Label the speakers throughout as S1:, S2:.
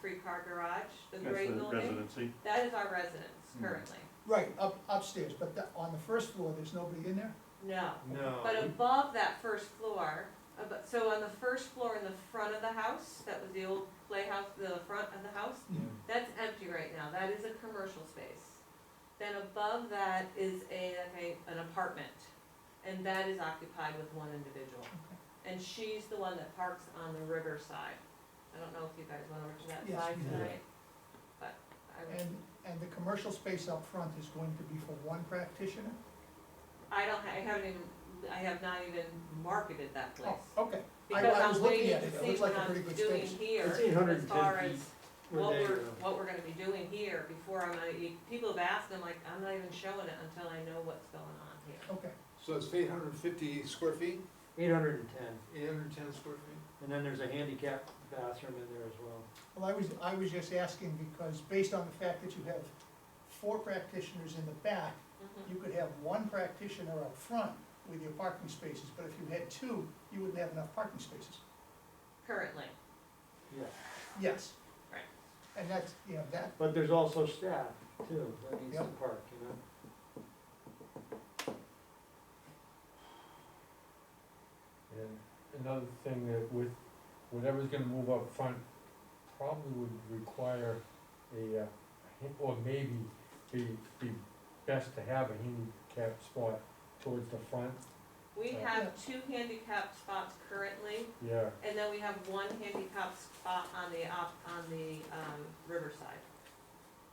S1: three-car garage, the
S2: That's
S1: gray
S2: the
S1: building.
S2: residency.
S1: That is our residence
S2: Hmm.
S1: currently.
S3: Right, up, upstairs, but the- on the first floor, there's nobody in there?
S1: No.
S4: No.
S2: Oh.
S1: But above that first floor, abo- so on the first floor in the front of the house, that was the old playhouse, the front of the house,
S3: Yeah.
S1: that's empty right now, that is a commercial space. Then above that is a, like a, an apartment, and that is occupied with one individual. And she's the one that parks on the river side. I don't know if you guys went over to that
S3: Yes,
S1: side
S3: we did.
S1: tonight, but I would.
S3: And, and the commercial space up front is going to be for one practitioner?
S1: I don't, ha- I haven't even, I have not even marketed that place.
S3: Oh, okay, I-
S1: Because
S3: I
S1: I'm
S3: was looking
S1: waiting
S3: at it. It
S1: to see
S3: looks
S1: what
S3: like a pretty
S1: I'm
S3: good
S1: doing
S3: space.
S1: here,
S4: It's 810
S1: as far as
S4: feet. Where
S1: what
S4: they,
S1: we're,
S4: uh,
S1: what we're gonna be doing here before I'm, gonna e- people have asked, I'm like, I'm not even showing it until I know what's going on here.
S3: okay.
S5: So it's eight hundred and fifty square feet,
S4: Eight hundred and ten,
S5: eight hundred and ten square feet?
S4: and then there's a handicap bathroom in there as well.
S3: Well, I was, I was just asking because based on the fact that you have four practitioners in the back,
S1: Mhm.
S3: you could have one practitioner up front with your parking spaces, but if you had two, you wouldn't have enough parking spaces.
S1: Currently,
S4: Yeah,
S3: Yes.
S1: Right.
S3: And that's, you know, that,
S4: but there's also staff too, that needs to
S3: Yep.
S4: park, you know?
S6: And another thing that with, whatever's gonna move up front probably would require a, uh, han- or maybe be, be best to have a handicap spot towards the front,
S1: we
S6: Yeah.
S1: have two handicapped spots currently,
S6: yeah.
S1: and then we have one handicapped spot on the op, on the, um, riverside.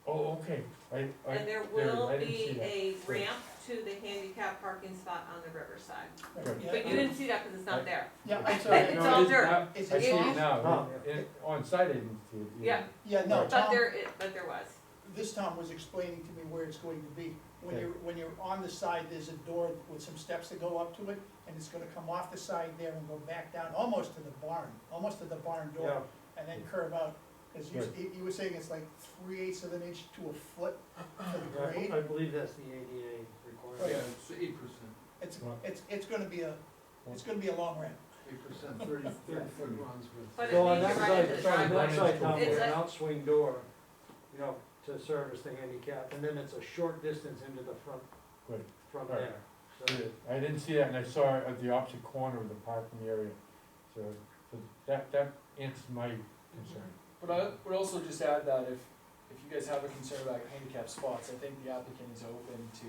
S6: Oh, okay, I, I,
S1: And there
S6: there,
S1: will
S6: I didn't see
S1: be
S6: that.
S1: a
S6: Good.
S1: ramp to the handicap parking spot on the riverside.
S6: Good.
S3: yeah,
S1: But you didn't see that because it's not
S6: I-
S1: there.
S3: yeah, I'm
S6: No,
S3: sorry.
S1: It's
S6: it
S1: all
S6: is
S1: dirt.
S6: now-
S3: It's-
S6: I see
S1: it's-
S6: it now,
S4: Oh.
S6: It- it- on site I didn't see it.
S1: Yeah.
S3: Yeah, no,
S6: Right.
S1: But
S3: Tom,
S1: there, it, but there was.
S3: this Tom was explaining to me where it's going to be. When
S6: Okay.
S3: you're, when you're on the side, there's a door with some steps that go up to it, and it's gonna come off the side there and go back down, almost to the barn, almost to the barn
S4: Yeah,
S3: door, and then curve out. Cause you, s-
S6: Right.
S3: you- you were saying it's like three eighths of an inch to a foot for the
S4: I-
S3: grade.
S4: I believe that's the ADA requirement.
S5: Yeah, it's eight percent,
S3: It's,
S6: Right.
S3: it's, it's gonna be a, it's gonna be a long ramp.
S5: eight percent, thirty, thirty foot runs with.
S1: But
S4: So on
S1: means
S4: that
S1: you're right
S4: side,
S1: into the
S4: so on that
S1: driveway.
S4: side, Tom,
S1: It's
S4: there's an
S1: a-
S4: outswing door, you know, to service the handicap, and then it's a short distance into the front,
S6: Good.
S4: from
S6: Right.
S4: there. So
S6: Yeah, I didn't see that, and I saw it at the opposite corner of the parking area, so, so that, that answers my concern.
S7: But I would also just add that if, if you guys have a concern about your handicap spots, I think the applicant is open to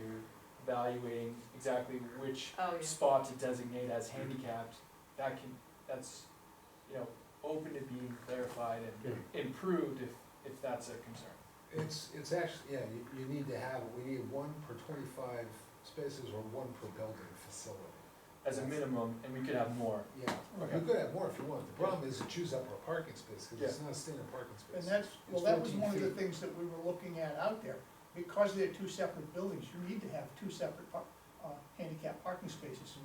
S7: evaluating exactly which
S1: Oh, yeah.
S7: spot to designate as handicapped. That can, that's, you know, open to being clarified and improved if, if that's a concern.
S5: It's, it's actually, yeah, you, you need to have, we need one per twenty-five spaces or one per building facility.
S7: As a minimum, and we could have more.
S5: Yeah,
S7: Okay.
S5: you could have more if you want, the problem is it chews up our parking space, cause it's not a standard parking
S3: And
S5: space.
S3: that's, well,
S5: It's
S3: that was
S5: 14
S3: one of the
S5: feet.
S3: things that we were looking at out there. Because they're two separate buildings, you need to have two separate par- uh, handicap parking spaces.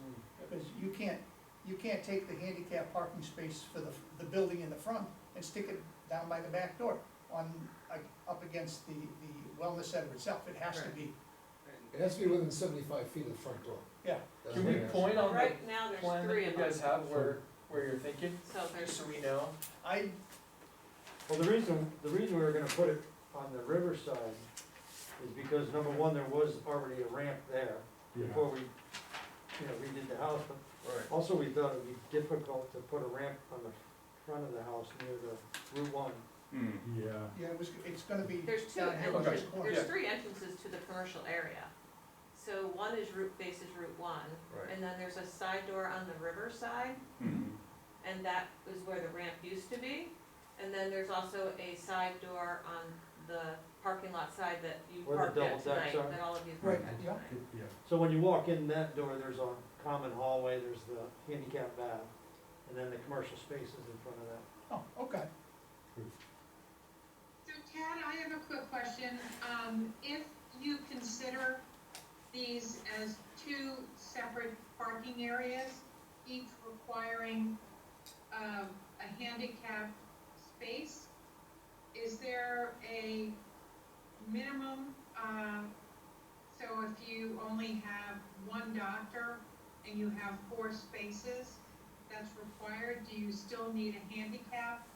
S3: Because you can't, you can't take the handicap parking space for the, the building in the front and stick it down by the back door on, like, up against the, the wellness center itself. It has to
S1: Right.
S3: be,
S5: It has to be within seventy-five feet of the front door.
S3: Yeah.
S5: That's
S7: Can
S5: what
S7: we
S5: it is.
S7: point on the
S1: Right now, there's
S7: plan that
S1: three
S7: you
S1: of them,
S7: guys have where, where you're thinking,
S1: so
S7: just
S1: there's,
S7: so we know?
S3: I,
S4: Well, the reason, the reason we were gonna put it on the riverside is because, number one, there was already a ramp there before we, you know, redid the house, but
S5: Right.
S4: also we thought it'd be difficult to put a ramp on the front of the house near the Route One.
S6: Yeah.
S3: yeah, it was, it's gonna be
S1: there's two
S3: down here on this
S7: Okay.
S1: entrances,
S3: corner.
S1: there's three entrances to the commercial area. So one is Route, faces Route one,
S5: Right.
S1: and then there's a side door on the riverside,
S7: mm-hmm.
S1: and that is where the ramp used to be. And then there's also a side door on the parking lot side that you
S4: Where the
S1: parked at
S4: double decks
S1: tonight,
S4: are.
S1: that all of you parked
S3: Right,
S1: at
S3: yeah.
S1: tonight.
S6: Yeah.
S4: So when you walk in that door, there's a common hallway, there's the handicap bath, and then the commercial spaces in front of that.
S3: Oh, okay.
S8: So Tad, I have a quick question. Um, if you consider these as two separate parking areas, each requiring, um, a handicap space, is there a minimum, um, so if you only have one doctor and you have four spaces, that's required, do you still need a handicap